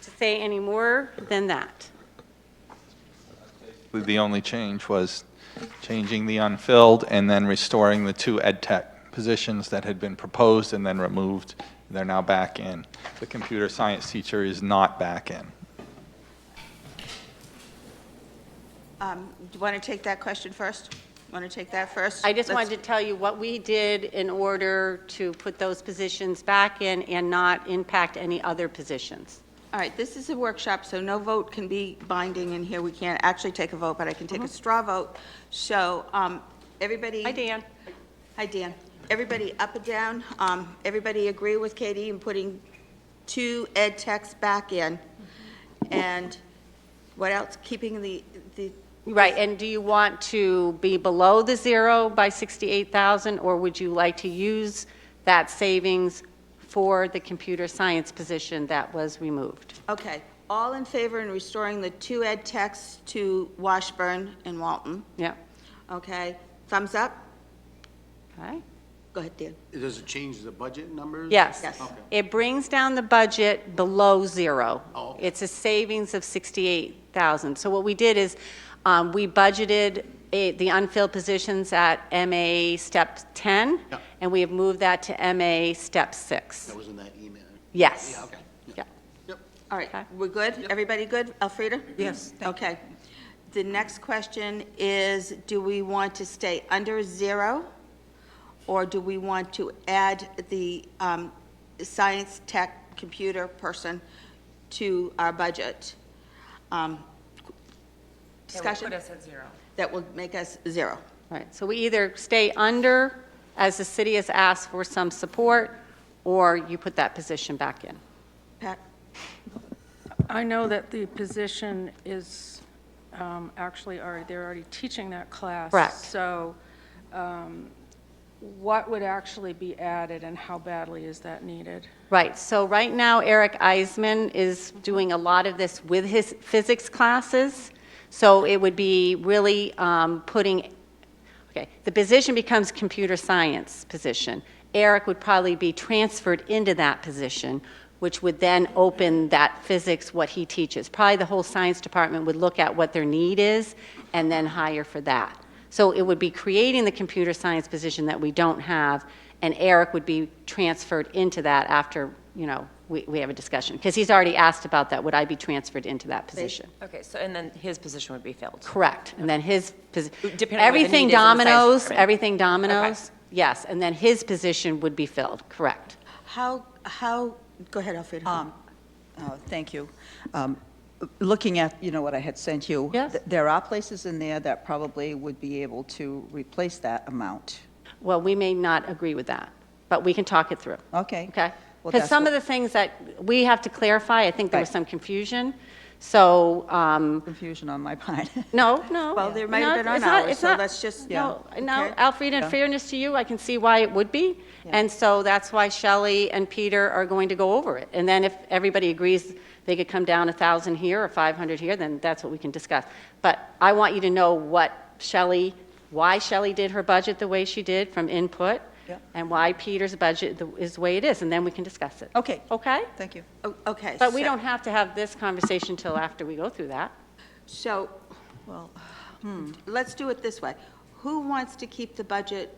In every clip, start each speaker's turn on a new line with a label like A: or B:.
A: say any more than that.
B: The only change was changing the unfilled and then restoring the two ed tech positions that had been proposed and then removed. They're now back in. The computer science teacher is not back in.
C: Um, Do you want to take that question first? Want to take that first?
A: I just
C: Let's-
A: wanted to tell you what we did in order to put those positions back in and not impact any other positions.
C: All right, this is a workshop, so no vote can be binding in here. We can't actually take a vote, but I can take a straw vote. So um, everybody...
A: Uh-huh. Hi, Dan.
C: Hi, Dan. Everybody up and down? Um, Everybody agree with Katie in putting two ed techs back in? And what else? Keeping the, the
A: Right, and do you want to be below the zero by 68,000, or would you like to use that savings for the computer science position that was removed?
C: okay, all in favor in restoring the two ed techs to Washburn and Walton?
A: Yeah,
C: Okay, thumbs up?
A: okay?
C: Go ahead, Dan.
D: Does it change the budget numbers?
A: Yes.
C: Yes. Okay.
A: It brings down the budget below zero.
D: Oh, okay.
A: It's a savings of 68,000. So what we did is, um, we budgeted a- the unfilled positions at MA Step 10,
D: Yeah.
A: and we have moved that to MA Step 6.
D: That was in that email.
A: Yes.
D: Yeah, okay.
A: Yeah.
D: Yep.
C: All right,
A: Okay.
C: we're good? Everybody good? Elfrida?
E: Yes, thank
C: Okay. The next question is, do we want to stay under zero? Or do we want to add the um, science, tech, computer person to our budget? Um, Discussion?
E: It would put us at zero.
C: That will make us zero.
A: Right, so we either stay under, as the city has asked for some support, or you put that position back in.
C: Pat?
F: I know that the position is um, actually already, they're already teaching that class.
A: Correct.
F: So um, what would actually be added and how badly is that needed?
A: Right, so right now Eric Eisman is doing a lot of this with his physics classes, so it would be really um, putting, okay, the position becomes computer science position. Eric would probably be transferred into that position, which would then open that physics, what he teaches. Probably the whole science department would look at what their need is and then hire for that. So it would be creating the computer science position that we don't have, and Eric would be transferred into that after, you know, we, we have a discussion. Because he's already asked about that, would I be transferred into that position?
E: Okay, so, and then his position would be filled.
A: Correct. And then his, posi-
E: Depending on what the
A: everything
E: need is in the science
A: dominoes,
E: department.
A: everything dominoes, yes. And then his position would be filled, correct.
C: How, how, go ahead, Elfrida.
G: Um, uh, Thank you. Um, Looking at, you know, what I had sent you.
A: Yes.
G: th- There are places in there that probably would be able to replace that amount.
A: Well, we may not agree with that, but we can talk it through.
G: Okay.
A: Okay?
G: Well,
A: Because
G: that's
A: some
G: what-
A: of the things that we have to clarify, I think there was
G: Right.
A: some confusion, so, um,
G: Confusion on my part.
A: No, no.
C: Well, there might have
A: No,
C: been on
A: it's not-
C: ours,
A: it's
C: so
A: not-
C: let's just-
A: No,
C: Yeah.
A: no,
C: Okay.
A: Alfreda, in
G: Yeah.
A: fairness to you, I can see why it would be. And so that's why Shelley and Peter are going to go over it. And then if everybody agrees they could come down a 1,000 here or 500 here, then that's what we can discuss. But I want you to know what Shelley, why Shelley did her budget the way she did from input,
G: Yeah.
A: and why Peter's budget the- is the way it is, and then we can discuss it.
G: Okay.
A: Okay?
G: Thank you.
C: O- Oh, Okay.
A: But we
C: so-
A: don't have to have this conversation till after we go through that.
C: So, hmm,
G: Well,
C: let's do it this way. Who wants to keep the budget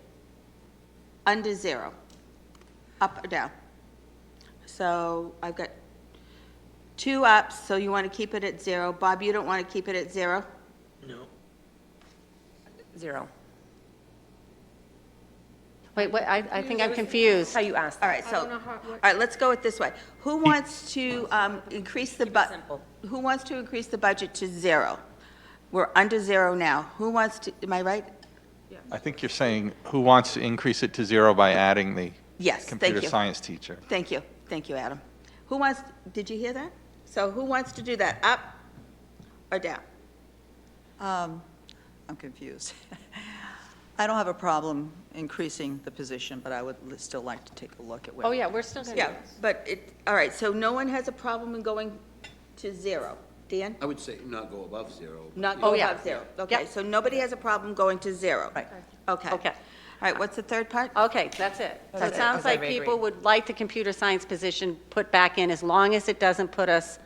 C: under zero? Up or down? So I've got two ups, so you want to keep it at zero. Bob, you don't want to keep it at zero?
E: Zero.
A: Wait, what, I, I think I'm confused.
E: How you asked
C: All
E: that.
C: right, so, all right, let's go with this way. Who wants to um, increase the
E: it
C: bu-
E: simple.
C: Who wants to increase the budget to zero? We're under zero now. Who wants to, am I right?
B: I think you're saying who wants to increase it to zero by adding the
C: Yes, thank
B: computer
C: you.
B: science teacher?
C: Thank you, thank you, Adam. Who wants, did you hear that? So who wants to do that, up or down?
G: um, I'm confused. I don't have a problem increasing the position, but I would li- still like to take a look at where.
A: Oh, yeah, we're still going to.
C: Yeah, but it, all right, so no one has a problem in going to zero. Dan?
D: I would say not go above zero.
C: Not
A: Oh,
C: go
A: yeah.
C: above zero? Okay,
A: Yeah.
C: so nobody has a problem going to zero?
G: Right.
C: Okay.
A: Okay. Oh,
C: All right, what's the third part?
A: Okay, that's it. So it
E: That's it.
A: sounds
E: Okay.
A: like people would like the computer science position put back in as long as it doesn't put us